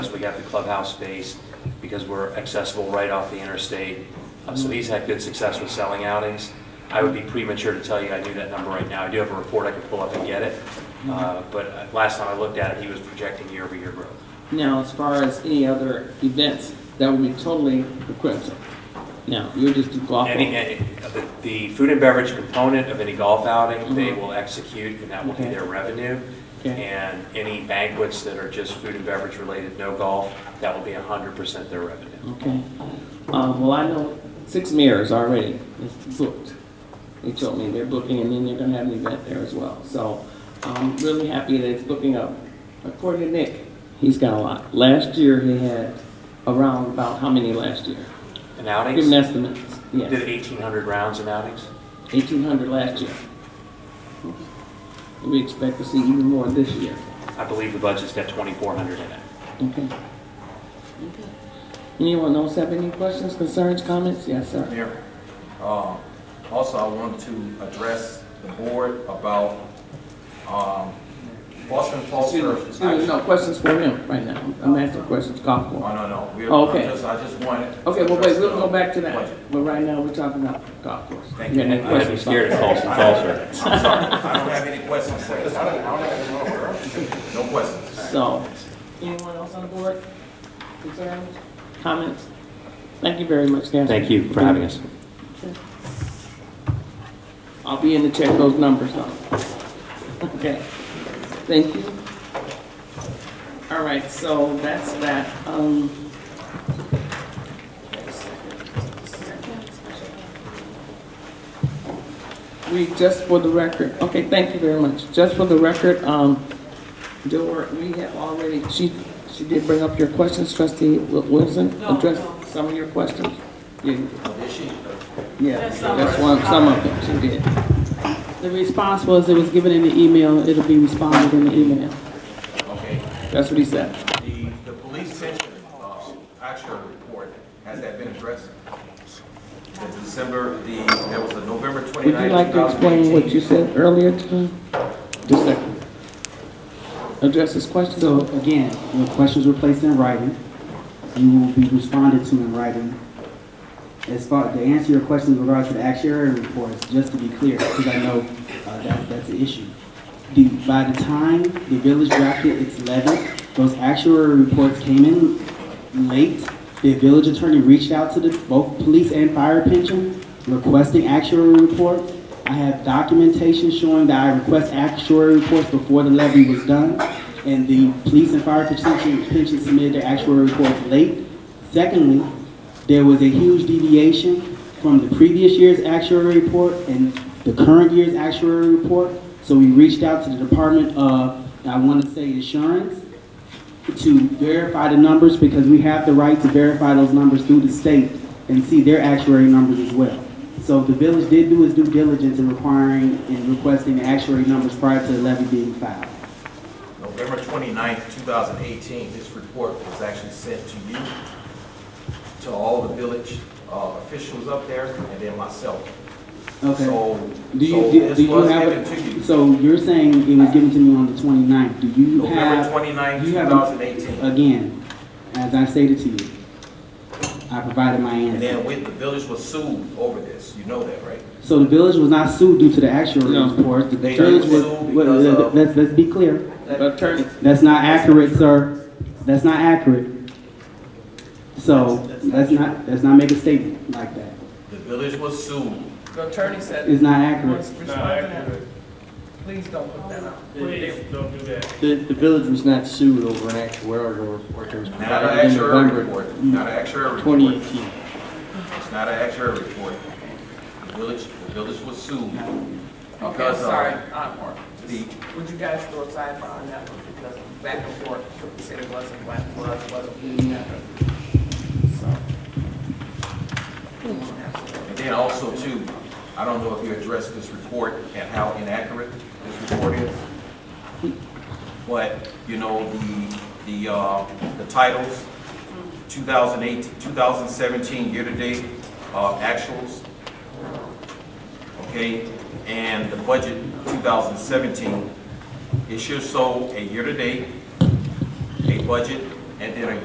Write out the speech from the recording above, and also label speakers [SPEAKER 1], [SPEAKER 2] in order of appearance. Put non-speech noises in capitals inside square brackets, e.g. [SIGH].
[SPEAKER 1] We got the clubhouse space because we're accessible right off the interstate. Uh, So he's had good success with selling outings. I would be premature to tell you I knew that number right now. I do have a report I can pull up and get it. Uh,
[SPEAKER 2] Mm-hmm.
[SPEAKER 1] But uh, last time I looked at it, he was projecting year-over-year growth.
[SPEAKER 2] Now, as far as any other events, that would be totally equipped. Now, you just do golf.
[SPEAKER 1] Any, any- uh, the- the food and beverage component of any golf outing, they will execute and that will be
[SPEAKER 2] Mm-hmm. Okay.
[SPEAKER 1] their revenue.
[SPEAKER 2] Okay.
[SPEAKER 1] And any banquets that are just food and beverage related, no golf, that will be 100% their revenue.
[SPEAKER 2] Okay. Um, well, I know six mayors already is booked. They told me they're booking and then they're gonna have an event there as well. So I'm really happy that it's booking up. According to Nick, he's got a lot. Last year, he had around about how many last year?
[SPEAKER 1] And
[SPEAKER 2] Give an
[SPEAKER 1] outings,
[SPEAKER 2] estimate.
[SPEAKER 1] did
[SPEAKER 2] Yes,
[SPEAKER 1] 1,800 rounds in outings?
[SPEAKER 2] eighteen hundred last year. We expect to see even more this year.
[SPEAKER 1] I believe the budget's got 2,400 in it.
[SPEAKER 2] Okay. Anyone else have any questions, concerns, comments? Yes, sir.
[SPEAKER 3] Mayor, um, also I want to address the board about, um, Foster and Foster.
[SPEAKER 2] Excuse me, No questions for him right now. I'm asking questions, golf
[SPEAKER 3] Oh,
[SPEAKER 2] course.
[SPEAKER 3] no, no, we,
[SPEAKER 2] Okay.
[SPEAKER 3] I just, I just wanted. to
[SPEAKER 2] Okay, well, wait,
[SPEAKER 3] address
[SPEAKER 2] we'll
[SPEAKER 3] the
[SPEAKER 2] go back to
[SPEAKER 3] budget.
[SPEAKER 2] that. But right now, we're talking about golf course.
[SPEAKER 3] Thank
[SPEAKER 2] got
[SPEAKER 3] you.
[SPEAKER 2] any
[SPEAKER 1] I had to be
[SPEAKER 2] questions,
[SPEAKER 1] scared of
[SPEAKER 2] Bob?
[SPEAKER 1] false and false.
[SPEAKER 3] I'm sorry, [LAUGHS] I don't have any questions. sir. No questions.
[SPEAKER 2] So, anyone else on the board? Concerns, comments? Thank you very much, Kathy.
[SPEAKER 1] Thank you for having us.
[SPEAKER 2] I'll be in to check those numbers on. Okay, thank you. All right, so that's that, um. We, just for the record, okay, thank you very much. Just for the record, um, Dora, we have already, she, she did bring up your questions, trustee Wil- Wilson?
[SPEAKER 4] No,
[SPEAKER 2] addressed
[SPEAKER 4] no.
[SPEAKER 2] Some of your questions? Yeah. Yeah,
[SPEAKER 4] That's some
[SPEAKER 2] that's
[SPEAKER 4] of it.
[SPEAKER 2] one, some of them, she did.
[SPEAKER 4] The response was it was given in the email, it'll be responded in the email.
[SPEAKER 3] Okay,
[SPEAKER 2] That's what he said.
[SPEAKER 3] the, the police pension, uh, actual report, has that been addressed? The December, the, that was the November
[SPEAKER 2] Would you
[SPEAKER 3] twenty-ninth,
[SPEAKER 2] like to explain what you said earlier to him? Just a second. Address his question?
[SPEAKER 5] So again, your questions were placed in writing. You will be responded to in writing. As far, to answer your questions in regards to the actuary reports, just to be clear, because I know uh, that, that's an issue. The, by the time the village drafted its levy, those actuary reports came in late. The village attorney reached out to the, both police and fire pension requesting actuary reports. I have documentation showing that I request actuary reports before the levy was done. And the police and fire pension pension submitted their actuary reports late. Secondly, there was a huge deviation from the previous year's actuary report and the current year's actuary report. So we reached out to the Department of, I want to say insurance, to verify the numbers because we have the right to verify those numbers through the state and see their actuary numbers as well. So the village did do its due diligence in requiring and requesting the actuary numbers prior to the levy being filed.
[SPEAKER 3] November 29th, 2018, this report was actually sent to you, to all the village uh, officials up there, and then myself.
[SPEAKER 5] Okay.
[SPEAKER 3] So,
[SPEAKER 5] Do you,
[SPEAKER 3] so
[SPEAKER 5] do, do
[SPEAKER 3] this
[SPEAKER 5] you
[SPEAKER 3] was
[SPEAKER 5] have,
[SPEAKER 3] given to
[SPEAKER 5] a-
[SPEAKER 3] you,
[SPEAKER 5] so you're saying it was given to me on the 29th, do you
[SPEAKER 3] November
[SPEAKER 5] have,
[SPEAKER 3] 29th,
[SPEAKER 5] you have a-
[SPEAKER 3] 2018.
[SPEAKER 5] again, as I stated to you, I provided my
[SPEAKER 3] And then
[SPEAKER 5] answer.
[SPEAKER 3] with, the village was sued over this, you know that, right?
[SPEAKER 5] So the village was not sued due to the actuary
[SPEAKER 2] No.
[SPEAKER 5] report, the
[SPEAKER 3] They
[SPEAKER 5] village
[SPEAKER 3] were
[SPEAKER 5] was,
[SPEAKER 3] sued
[SPEAKER 5] wait,
[SPEAKER 3] because of-
[SPEAKER 5] let's, let's be clear,
[SPEAKER 2] Attorney,
[SPEAKER 5] that's not accurate, sir, that's not accurate. So, let's not, let's not make a statement like that,
[SPEAKER 3] The village was sued.
[SPEAKER 2] the attorney said,
[SPEAKER 5] it's not accurate.
[SPEAKER 6] No, actually,
[SPEAKER 2] please don't put that out.
[SPEAKER 6] please don't do that.
[SPEAKER 7] The, the village was not sued over an actuarial report that was
[SPEAKER 3] Not an
[SPEAKER 7] provided in
[SPEAKER 3] actuary
[SPEAKER 7] November
[SPEAKER 3] report, not an actuary
[SPEAKER 7] twenty
[SPEAKER 3] report.
[SPEAKER 7] eighteen.
[SPEAKER 3] It's not an actuary report. The village, the village was sued.
[SPEAKER 2] Okay, I'm
[SPEAKER 3] because of
[SPEAKER 2] sorry, Encore.
[SPEAKER 3] The,
[SPEAKER 2] Would you guys go sidebar on that one, because back and forth, people said it wasn't black, was, wasn't.
[SPEAKER 3] And then also too, I don't know if you addressed this report and how inaccurate this report is. But, you know, the, the, uh, the titles, 2008, 2017 year-to-date, uh, actuals. Okay, and the budget 2017, it should show a year-to-date, a budget, and then a